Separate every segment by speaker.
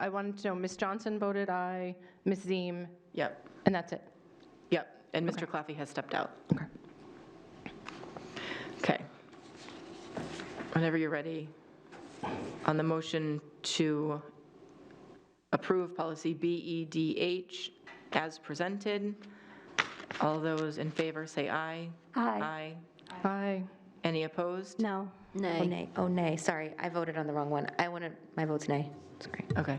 Speaker 1: I wanted to know, Ms. Johnson voted aye, Ms. Ziem,
Speaker 2: Yep,
Speaker 1: and that's it.
Speaker 2: yep. And Mr. Claffey has stepped out.
Speaker 1: Okay.
Speaker 2: Okay. Whenever you're ready, on the motion to approve policy BEDH as presented, all those in favor say aye.
Speaker 3: Aye.
Speaker 2: Aye.
Speaker 1: Aye.
Speaker 2: Any opposed?
Speaker 4: No. Oh, nay. Oh, nay, sorry, I voted on the wrong one. I wanted, my vote's nay, sorry.
Speaker 2: Okay.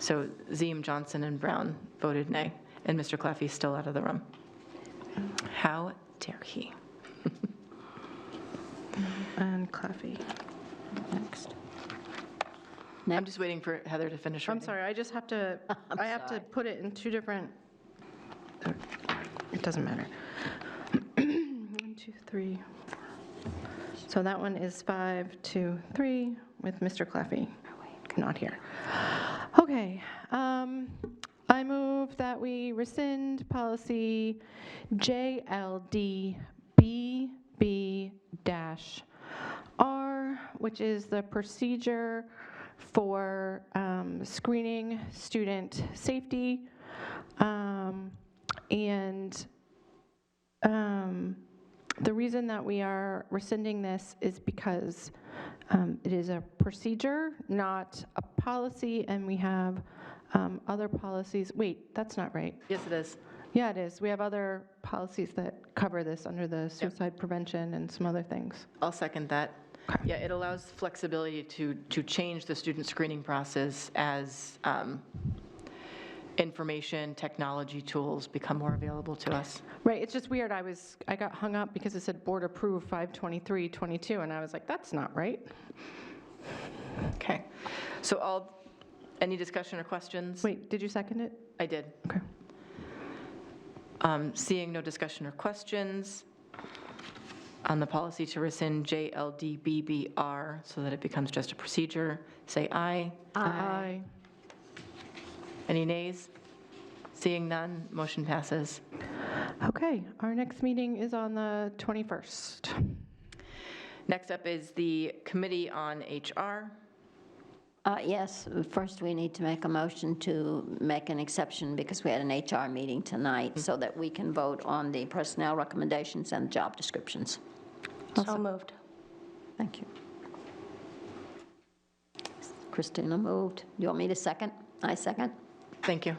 Speaker 2: So Ziem, Johnson, and Brown voted nay, and Mr. Claffey's still out of the room. How dare he?
Speaker 1: And Claffey.
Speaker 4: Next.
Speaker 2: I'm just waiting for Heather to finish
Speaker 1: I'm
Speaker 2: reading.
Speaker 1: sorry, I just have to, I have to put it in two different, it doesn't matter. One, two, three. So that one is five, two, three, with Mr. Claffey not here. Okay, um, I move that we rescind policy JLDBB-R, which is the procedure for um, screening student safety. Um, And um, the reason that we are rescinding this is because um, it is a procedure, not a policy, and we have um, other policies. Wait, that's not right.
Speaker 2: Yes, it is.
Speaker 1: Yeah, it is. We have other policies that cover this under the suicide prevention and some other things.
Speaker 2: I'll second that. Yeah, it allows flexibility to, to change the student screening process as um, information, technology tools become more available to us.
Speaker 1: Right, it's just weird. I was, I got hung up because it said board approved 52322, and I was like, that's not right.
Speaker 2: Okay. So all, any discussion or questions?
Speaker 1: Wait, did you second it?
Speaker 2: I did.
Speaker 1: Okay.
Speaker 2: Um, Seeing no discussion or questions on the policy to rescind JLDBBR so that it becomes just a procedure, say aye.
Speaker 1: Aye.
Speaker 2: Any nays? Seeing none, motion passes.
Speaker 1: Okay, our next meeting is on the 21st.
Speaker 2: Next up is the Committee on HR.
Speaker 4: Uh, Yes, first we need to make a motion to make an exception because we had an HR meeting tonight so that we can vote on the personnel recommendations and job descriptions.
Speaker 5: So moved.
Speaker 4: Thank you. Christina moved. You want me to second? I second?
Speaker 2: Thank you.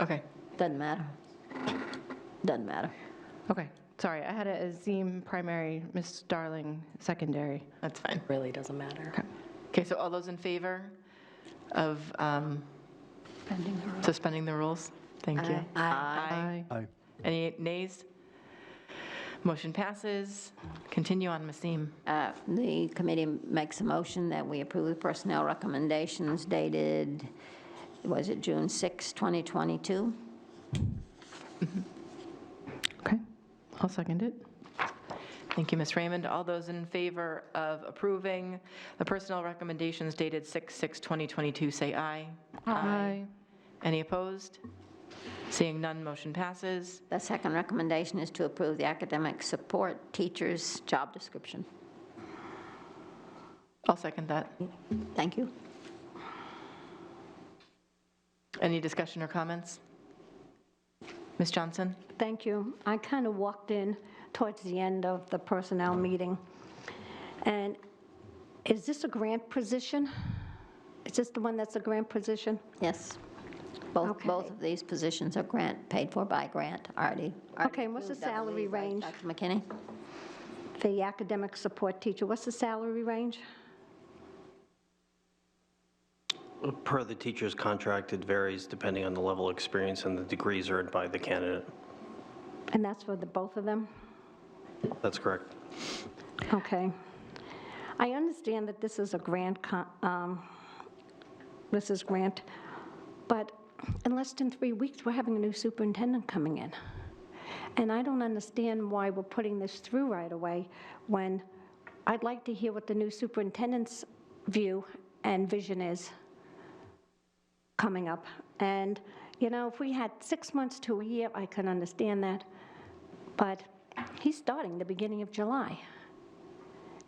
Speaker 2: Okay.
Speaker 4: Doesn't matter. Doesn't matter.
Speaker 1: Okay, sorry, I had it as Ziem primary, Miss Darling secondary.
Speaker 2: That's fine.
Speaker 5: Really doesn't matter.
Speaker 2: Okay, so all those in favor of um, suspending the rules? Thank you. Aye.
Speaker 6: Aye.
Speaker 2: Any nays? Motion passes. Continue on, Ms. Neem.
Speaker 4: Uh, The committee makes a motion that we approve the personnel recommendations dated, was it June 6, 2022?
Speaker 1: Okay, I'll second it.
Speaker 2: Thank you, Ms. Raymond. All those in favor of approving the personnel recommendations dated 6/6/2022, say aye. Any opposed? Seeing none, motion passes.
Speaker 4: The second recommendation is to approve the academic support teachers' job description.
Speaker 2: I'll second that.
Speaker 4: Thank you.
Speaker 2: Any discussion or comments? Ms. Johnson?
Speaker 5: Thank you. I kind of walked in towards the end of the personnel meeting. And is this a grant position? Is this the one that's a grant position?
Speaker 4: Yes. Both,
Speaker 5: Okay.
Speaker 4: both of these positions are grant, paid for by grant, already. already
Speaker 5: Okay, and what's the
Speaker 4: approved, I
Speaker 5: salary
Speaker 4: believe, right,
Speaker 5: range?
Speaker 4: Dr. McKinney?
Speaker 5: The academic support teacher, what's the salary range?
Speaker 7: Per the teacher's contract, it varies depending on the level of experience and the degrees earned by the candidate.
Speaker 5: And that's for the both of them?
Speaker 7: That's correct.
Speaker 5: Okay. I understand that this is a grant, co- um, this is grant, but in less than three weeks, we're having a new superintendent coming in. And I don't understand why we're putting this through right away when I'd like to hear what the new superintendent's view and vision is coming up. And, you know, if we had six months to a year, I can understand that. But he's starting the beginning of July.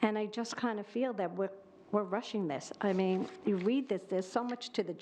Speaker 5: And I just kind of feel that we're we're rushing this. I mean, you read this, there's so much to the